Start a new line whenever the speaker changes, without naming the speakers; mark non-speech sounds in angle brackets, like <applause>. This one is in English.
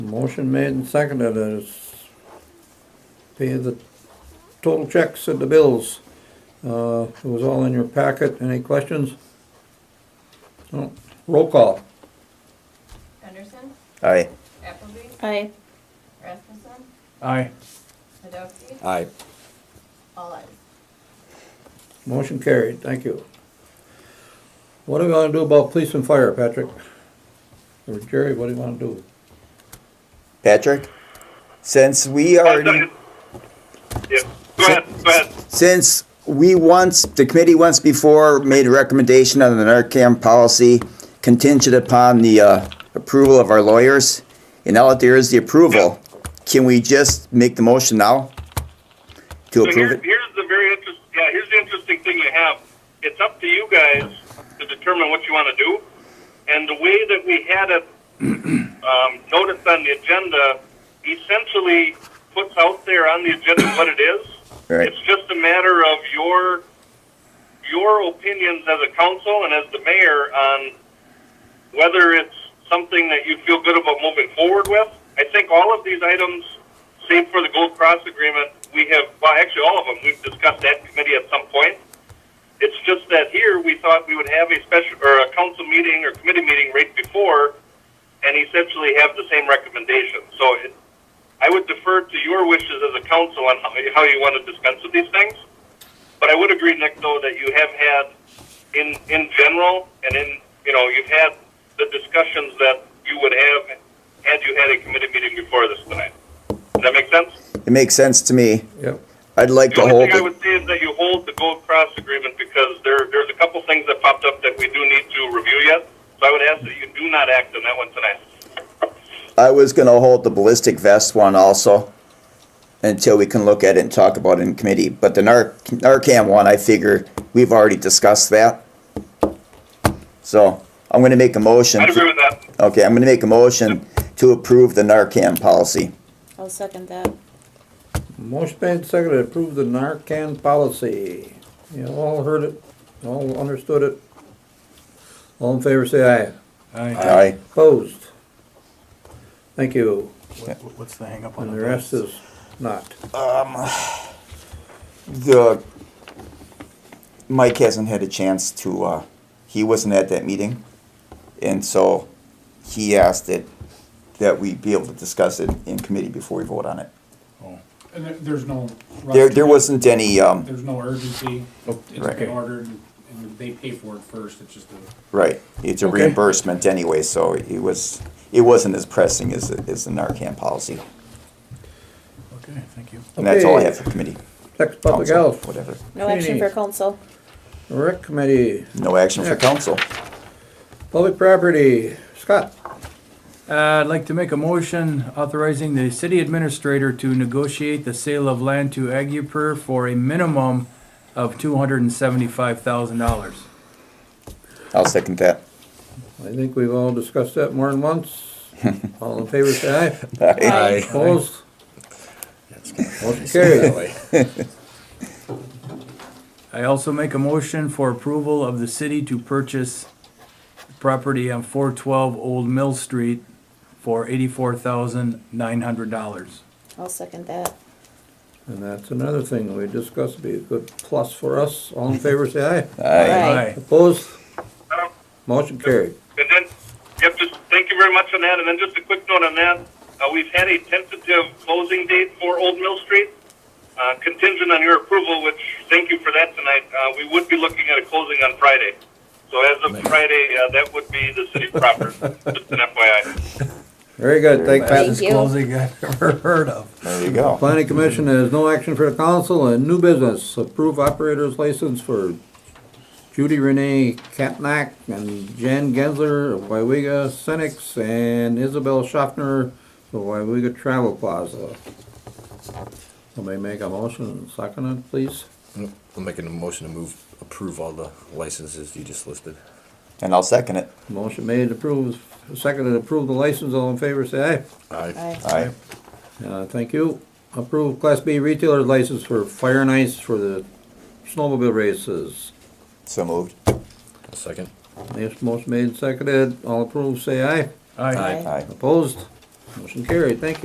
Motion made and seconded is pay the total checks and the bills. Uh, it was all in your packet. Any questions? No. Roll call.
Anderson,
Aye.
Appleby,
Aye.
Rasmussen,
Aye.
Sadowski,
Aye.
all eyes.
Motion carried. Thank you. What are we gonna do about police and fire, Patrick? Or Jerry, what do you wanna do?
Patrick, since we already,
Yeah, go ahead, go ahead.
since we once, the committee once before made a recommendation on the Narcan policy contingent upon the uh, approval of our lawyers, and now that there is the approval, can we just make the motion now to
So
approve
here,
it?
here's the very interest, yeah, here's the interesting thing you have. It's up to you guys to determine what you want to do. And the way that we had it um, noticed on the agenda essentially puts out there on the agenda what it is.
Right.
It's just a matter of your your opinions as a council and as the mayor on whether it's something that you feel good about moving forward with. I think all of these items, save for the Gold Cross agreement, we have, well, actually all of them, we've discussed that in committee at some point. It's just that here, we thought we would have a special, or a council meeting or committee meeting right before, and essentially have the same recommendation. So it, I would defer to your wishes as a council on how you- how you want to dispense with these things. But I would agree, Nick, though, that you have had, in, in general, and in, you know, you've had the discussions that you would have had you had a committee meeting before this tonight. Does that make sense?
It makes sense to me.
Yep.
I'd like
The
to
only
hold
thing I
it.
would say is that you hold the Gold Cross agreement because there, there's a couple things that popped up that we do need to review yet. So I would ask that you do not act on that one tonight.
I was gonna hold the ballistic vest one also until we can look at it and talk about it in committee. But the Nar- Narcan one, I figure we've already discussed that. So I'm gonna make a motion.
I'd agree with that.
Okay, I'm gonna make a motion to approve the Narcan policy.
I'll second that.
Motion made and seconded to approve the Narcan policy. You all heard it, all understood it. All in favor, say aye.
Aye.
Aye.
Opposed? Thank you.
What- What's the hang up on
And
the
the rest is not.
Um, The, Mike hasn't had a chance to, uh, he wasn't at that meeting. And so he asked it, that we be able to discuss it in committee before we vote on it.
And there, there's no rush.
There, there wasn't any, um,
There's no urgency. It's
right.
been ordered and they pay for it first. It's just a,
right, it's a
Okay.
reimbursement anyway, so it was, it wasn't as pressing as, the- as the Narcan policy.
Okay, thank you.
And that's all I
Okay.
have for committee.
Next, Public
council,
Health,
Whatever.
No action for
Greetings.
council.
Rec Committee,
No action for
Next.
council.
Public Property, Scott.
Uh, I'd like to make a motion authorizing the city administrator to negotiate the sale of land to Agupur for a minimum of two hundred and seventy-five thousand dollars.
I'll second that. <laughs>
I think we've all discussed that more than once. All in favor, say aye.
Aye.
Opposed? Motion carried.
I also make a motion for approval of the city to purchase property on four twelve Old Mill Street for eighty-four thousand nine hundred dollars.
I'll second that.
And that's another thing we discussed, be a good plus for us. All in favor, say aye.
Aye.
Opposed?
Um,
Motion carried.
And then, yep, just thank you very much on that. And then just a quick note on that. Uh, we've had a tentative closing date for Old Mill Street, uh, contingent on your approval, which thank you for that tonight. Uh, we would be looking at a closing on Friday. So as of Friday, uh, that would be the city proper, just an <laughs> FYI.
Very good, thank you.
Thank
Fastest
you.
closing I've ever heard of.
There you go.
Planning Commission has no action for the council and new business. Approve operator's license for Judy Renee Katnack and Jan Gensler of Wyega Senex and Isabel Schaffner of Wyega Travel Plaza. Somebody make a motion and second it, please.
I'm making a motion to move, approve all the licenses you just listed.
And I'll second it.
Motion made, approved, seconded, approve the license. All in favor, say
Aye.
Aye.
Aye.
aye. Uh, thank you. Approve Class B retailer's license for Fire and Ice for the snowmobile races.
So moved.
A second.
Yes, motion made and seconded. All approved, say aye.
Aye.
Aye.
Aye.
Opposed? Motion carried. Thank you.